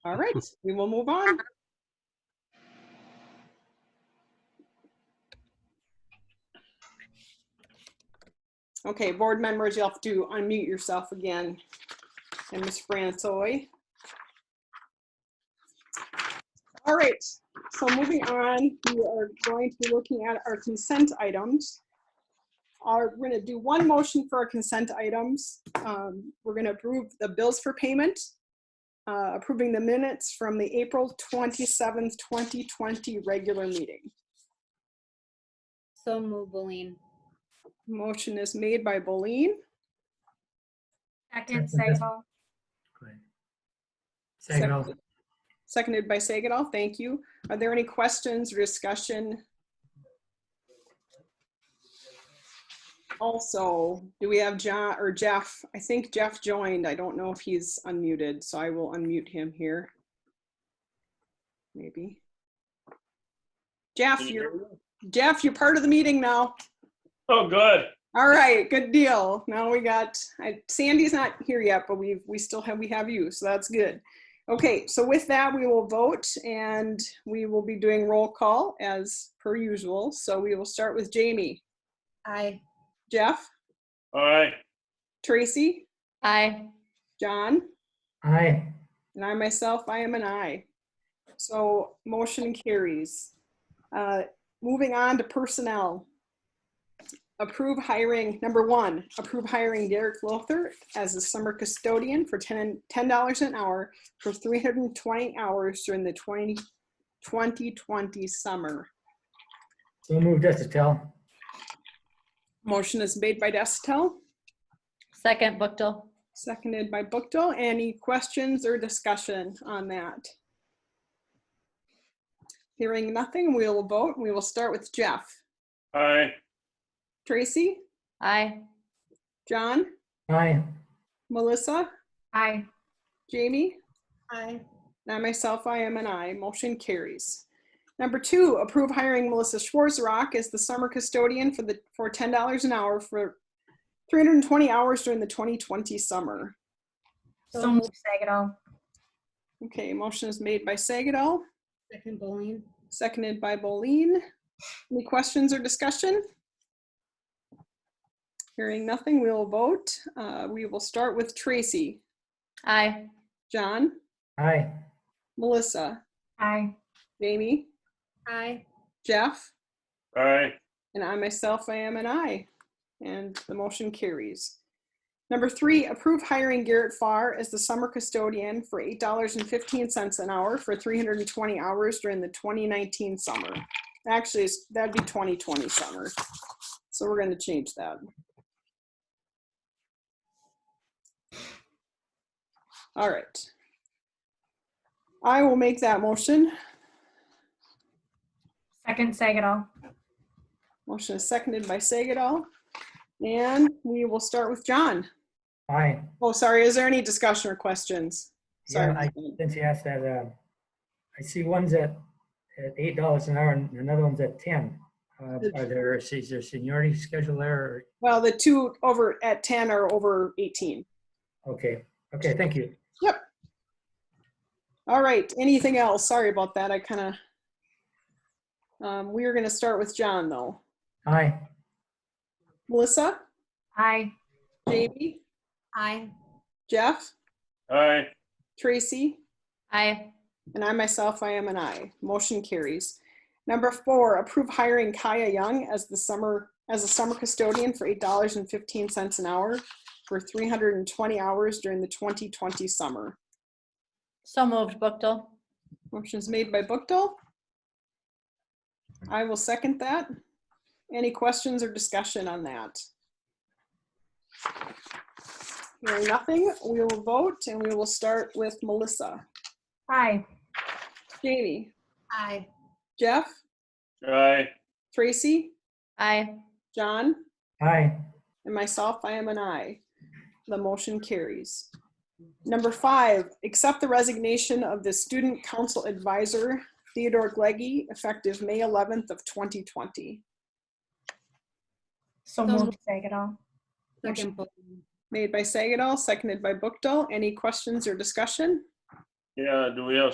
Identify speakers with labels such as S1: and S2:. S1: All right, we will move on. Okay, board members, you'll have to unmute yourself again. And Ms. Francois. All right, so moving on, we are going to be looking at our consent items. Are, we're gonna do one motion for our consent items. Um, We're gonna approve the bills for payment, uh, approving the minutes from the April 27th, 2020 regular meeting.
S2: So move, Boleen.
S1: Motion is made by Boleen,
S3: Second,
S4: Second.
S3: Sagal.
S4: Great. Second,
S1: seconded by Sagatol. Thank you. Are there any questions or discussion? Also, do we have John or Jeff? I think Jeff joined. I don't know if he's unmuted, so I will unmute him here. Maybe. Jeff, you're, Jeff, you're part of the meeting now.
S5: Oh, good.
S1: All right, good deal. Now we got, I- Sandy's not here yet, but we've, we still have, we have you, so that's good. Okay, so with that, we will vote and we will be doing roll call as per usual. So we will start with Jamie,
S2: Aye.
S1: Jeff,
S5: All right.
S1: Tracy,
S2: Aye.
S1: John,
S4: aye.
S1: and I myself, I am an I. So motion carries. Uh, Moving on to personnel. Approve hiring, number one, approve hiring Derek Lothar as a summer custodian for ten, ten dollars an hour for three hundred and twenty hours during the 20 2020 summer.
S4: So moved, Jessica.
S1: Motion is made by Destel,
S2: Second, Bookto.
S1: seconded by Bookto. Any questions or discussion on that? Hearing nothing, we'll vote. We will start with Jeff.
S5: All right.
S1: Tracy,
S2: Aye.
S1: John,
S4: Aye.
S1: Melissa,
S3: Aye.
S1: Jamie,
S2: Aye.
S1: and I myself, I am an I. Motion carries. Number two, approve hiring Melissa Schwarzrock as the summer custodian for the, for ten dollars an hour for three hundred and twenty hours during the twenty twenty summer.
S2: So
S3: So move, Sagal.
S1: Okay, motion is made by Sagatol,
S2: Second, Boleen.
S1: seconded by Boleen. Any questions or discussion? Hearing nothing, we will vote. Uh, we will start with Tracy,
S2: Aye.
S1: John,
S4: Aye.
S1: Melissa,
S3: Aye.
S1: Jamie,
S2: Aye.
S1: Jeff,
S5: All right.
S1: And I myself, I am an I. And the motion carries. Number three, approve hiring Garrett Farr as the summer custodian for $8.15 an hour for 320 hours during the 2019 summer. Actually, it's- that'd be 2020 summer. So we're going to change that. All right. I will make that motion.
S3: Second, Sagal.
S1: Motion is seconded by Sagatol. And we will start with John.
S4: Aye.
S1: Oh, sorry, is there any discussion or questions? Sorry.
S4: Yeah, I- Since you asked that, uh, I see one's at, at eight dollars an hour and another one's at ten. Uh, are there, is there seniority schedule there?
S1: Well, the two over at 10 are over 18.
S4: or- Okay, okay, thank you.
S1: All right, anything else? Sorry about that, I kind of. We are going to start with John, though.
S4: Aye.
S1: Melissa,
S3: Aye.
S1: Jamie,
S2: Aye.
S1: Jeff,
S5: All right.
S1: Tracy,
S2: Aye.
S1: And I myself, I am an I. Motion carries. Number four, approve hiring Kaya Young as the summer, as a summer custodian for eight dollars and fifteen cents an hour for three hundred and twenty hours during the twenty twenty summer.
S2: So moved, Bookto.
S1: Motion is made by Bookto. I will second that. Any questions or discussion on that? Hearing nothing, we will vote and we will start with Melissa.
S3: Aye.
S1: Jamie,
S2: Aye.
S1: Jeff,
S5: All right.
S1: Tracy,
S2: Aye.
S1: John,
S4: Aye.
S1: and myself, I am an I. The motion carries. Number five, accept the resignation of the Student Council Advisor Theodore Gleggy, effective May 11th of 2020.
S2: So
S3: So move, Sagal.
S2: Second, Boleen.
S1: Made by Sagatol, seconded by Bookto. Any questions or discussion?
S5: Yeah, do we have